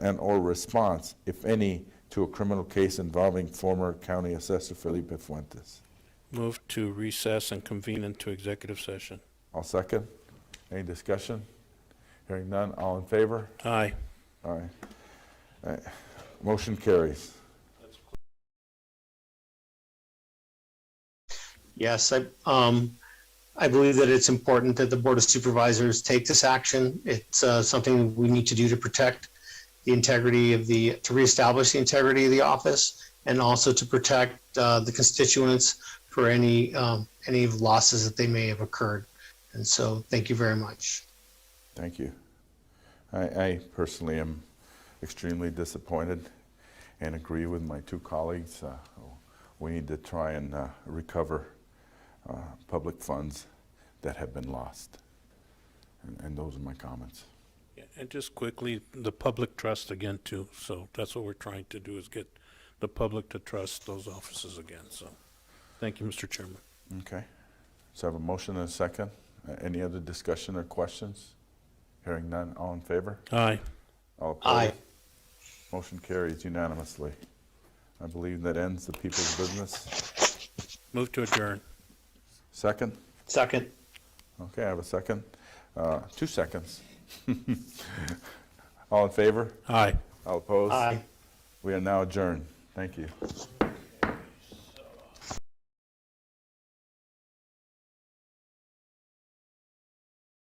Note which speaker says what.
Speaker 1: and/or response, if any, to a criminal case involving former County Assessor Felipe Fuentes.
Speaker 2: Move to recess and convene into executive session.
Speaker 1: I'll second. Any discussion? Hearing none, all in favor?
Speaker 2: Aye.
Speaker 1: All right. All right. Motion carries.
Speaker 3: Yes, I, um, I believe that it's important that the Board of Supervisors take this action. It's, uh, something we need to do to protect the integrity of the, to reestablish the integrity of the office and also to protect, uh, the constituents for any, um, any losses that they may have occurred. And so, thank you very much.
Speaker 1: Thank you. I, I personally am extremely disappointed and agree with my two colleagues. Uh, we need to try and uh, recover uh, public funds that have been lost. And, and those are my comments.
Speaker 2: And just quickly, the public trust again too, so that's what we're trying to do is get the public to trust those offices again, so. Thank you, Mr. Chairman.
Speaker 1: Okay. So I have a motion and a second. Uh, any other discussion or questions? Hearing none, all in favor?
Speaker 2: Aye.
Speaker 1: All opposed?
Speaker 3: Aye.
Speaker 1: Motion carries unanimously. I believe that ends the people's business.
Speaker 2: Move to adjourn.
Speaker 1: Second?
Speaker 3: Second.
Speaker 1: Okay, I have a second. Uh, Two seconds. All in favor?
Speaker 2: Aye.
Speaker 1: All opposed?
Speaker 3: Aye.
Speaker 1: We are now adjourned. Thank you.